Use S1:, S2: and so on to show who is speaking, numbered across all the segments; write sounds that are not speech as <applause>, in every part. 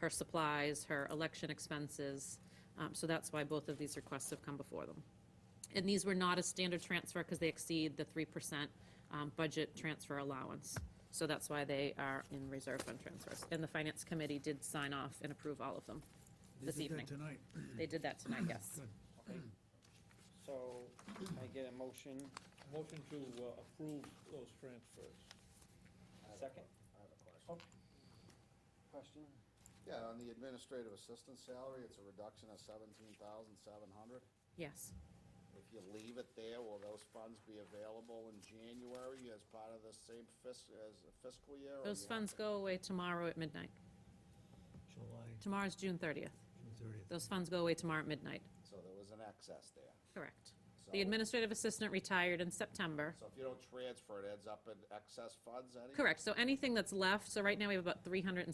S1: her supplies, her election expenses. Um, So that's why both of these requests have come before them. And these were not a standard transfer because they exceed the 3% um, budget transfer allowance. So that's why they are in reserve fund transfers. And the Finance Committee did sign off and approve all of them this
S2: They did that
S1: evening.
S2: Tonight.
S1: They did that tonight, yes.
S3: Okay. So I get a motion,
S4: Motion to uh, approve those transfers.
S3: second
S5: I have a question.
S3: question?
S5: Oh, Yeah, on the administrative assistant salary, it's a reduction of seventeen thousand seven hundred.
S1: Yes.
S5: If you leave it there, will those funds be available in January as part of the same fiscal, as fiscal year? or
S1: Those
S5: you have
S1: funds
S5: to-
S1: go away tomorrow at midnight.
S2: July,
S1: Tomorrow's June 30th.
S2: June thirtieth.
S1: Those funds go away tomorrow at midnight.
S5: So there was an excess there.
S1: Correct.
S5: So-
S1: The administrative assistant retired in September.
S5: So if you don't transfer, it ends up in excess funds anyway?
S1: Correct, so anything that's left, so right now we have about 370,000.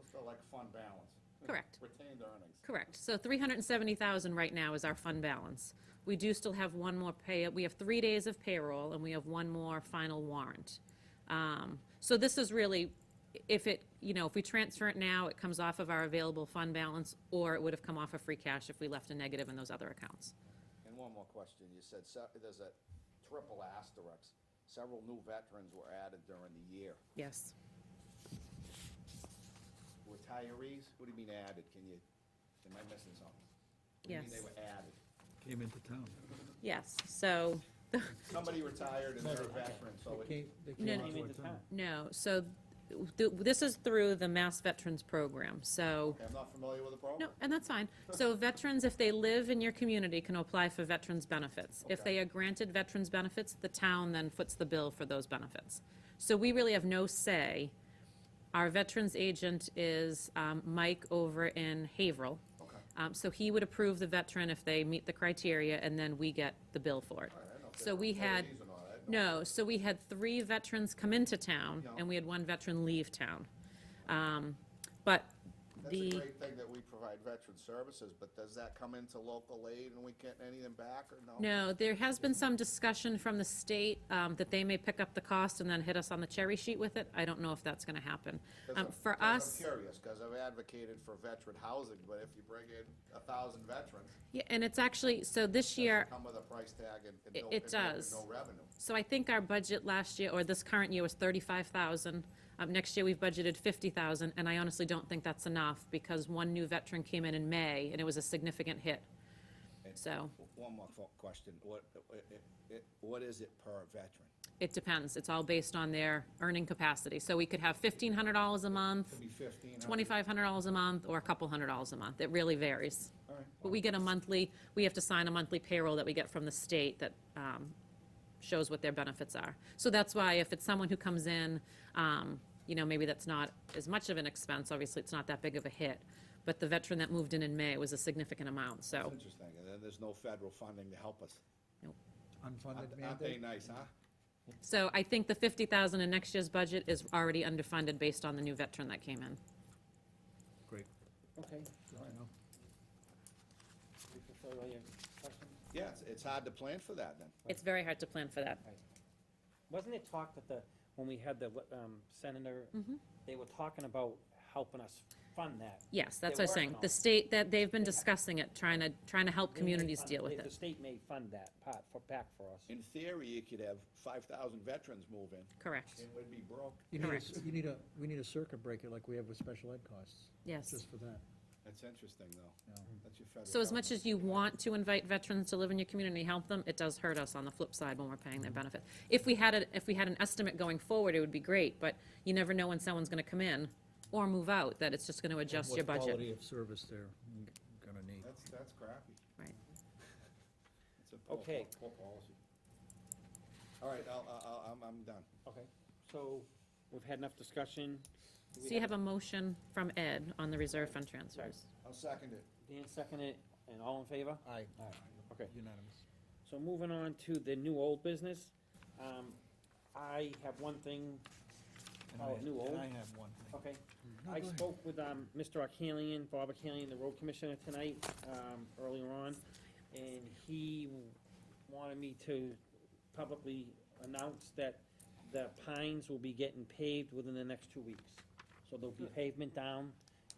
S5: It's still like fund balance.
S1: Correct.
S5: <laughs> Retained earnings.
S1: Correct, so 370,000 right now is our fund balance. We do still have one more pay, we have three days of payroll, and we have one more final warrant. Um, So this is really, if it, you know, if we transfer it now, it comes off of our available fund balance, or it would have come off of free cash if we left a negative in those other accounts.
S5: And one more question. You said se- there's a triple asterisk. Several new veterans were added during the year.
S1: Yes.
S5: Retirees? What do you mean added? Can you, am I missing something? What do you mean
S1: Yes.
S5: They were added.
S2: Came into town.
S1: Yes, so,
S5: Somebody retired and they're a veteran, so it-
S1: no,
S3: Came into town.
S1: No, so th- this is through the Mass Veterans Program, so,
S5: I'm not familiar with the
S1: no,
S5: program.
S1: and that's fine. So veterans, if they live in your community, can apply for veterans benefits. If
S5: Okay.
S1: they are granted veterans benefits, the town then foots the bill for those benefits. So we really have no say. Our veterans agent is um, Mike over in Haverhill.
S5: Okay.
S1: Um, So he would approve the veteran if they meet the criteria, and then we get the bill for it.
S5: All right, I don't know if
S1: So
S5: they're
S1: we had,
S5: employees or not. I had no-
S1: no, so we had three veterans come into town,
S5: Yeah.
S1: and we had one veteran leave town. Um, But
S5: That's a
S1: the,
S5: great thing that we provide veteran services, but does that come into local aid and we get anything back or no?
S1: no, um, there has been some discussion from the state um, that they may pick up the cost and then hit us on the cherry sheet with it. I don't know if that's going to happen.
S5: 'Cause
S1: Um,
S5: I'm-
S1: For
S5: 'cause
S1: us,
S5: I'm curious, because I've advocated for veteran housing, but if you bring in a thousand veterans,
S1: yeah, and it's actually, so this
S5: does
S1: year,
S5: it come with a price tag and and
S1: It-
S5: no-
S1: it
S5: and no- and
S1: does.
S5: no revenue?
S1: So I think our budget last year, or this current year, was thirty-five thousand. Um, next year, we've budgeted fifty thousand, and I honestly don't think that's enough, because one new veteran came in in May, and it was a significant hit. So,
S5: One more question. What, what is it per veteran?
S1: it depends, it's all based on their earning capacity. So we could have fifteen hundred dollars a month,
S5: be fifteen?
S1: twenty-five hundred dollars a month, or a couple hundred dollars a month, it really varies. But we get a monthly, we have to sign a monthly payroll that we get from the state that um, shows what their benefits are. So that's why if it's someone who comes in, um, you know, maybe that's not as much of an expense, obviously, it's not that big of a hit. But the veteran that moved in in May was a significant amount, so,
S5: Interesting, and then there's no federal funding to help us.
S2: Unfunded
S5: Aren't- Aren't they
S2: mandate.
S5: nice, huh?
S1: so I think the fifty thousand in next year's budget is already underfunded based on the new veteran that came in.
S2: Great.
S3: Okay,
S2: Good to know.
S3: we fulfill all your questions.
S5: Yeah, it's, it's hard to plan for that then.
S1: It's very hard to plan for that.
S3: Wasn't it talk that the, when we had the um, senator,
S1: Mm-hmm.
S3: they were talking about helping us fund that?
S1: Yes, that's what I'm
S3: They're
S1: saying,
S3: working on
S1: the
S3: it.
S1: state, that, they've been discussing it, trying to, trying to help
S3: They may
S1: communities
S3: fund-
S1: deal with
S3: they- The
S1: it.
S3: state may fund that part for, back for us.
S5: In theory, you could have five thousand veterans move in,
S1: Correct,
S5: it would be broke.
S2: You need a,
S1: Correct.
S2: s- you need a, we need a circuit breaker like we have with special ed costs.
S1: yes.
S2: Just for that.
S5: That's interesting though,
S2: Yeah.
S5: that's your federal.
S1: So as much
S5: government.
S1: as you want to invite veterans to live in your community, help them, it does hurt us on the flip side when we're paying their benefit. If we had a, if we had an estimate going forward, it would be great, but you never know when someone's gonna come in or move out, that it's just gonna adjust your
S2: What
S1: budget.
S2: Quality of service they're gonna need.
S5: That's, that's crappy.
S1: Right.
S5: It's a poor,
S3: Okay.
S5: poor policy. All right, I'll, I'll- I'll, I'm, I'm done.
S3: Okay, so we've had enough discussion. Do we
S1: So you have a motion from Ed on the reserve fund transfers.
S5: I'll second it.
S3: Dan seconded, and all in favor?
S2: Aye.
S3: Okay.
S2: Unanimous.
S3: So moving on to the new old business, um, I have one thing,
S2: And
S3: Oh,
S2: I-
S3: new old?
S2: And I have one thing.
S3: okay?
S2: No,
S3: I
S2: go ahead.
S3: spoke with, um, Mr. Arcanian, Bob Arcanian, the road commissioner tonight, um, earlier on, and he wanted me to publicly announce that the pines will be getting paved within the next two weeks. So there'll be pavement down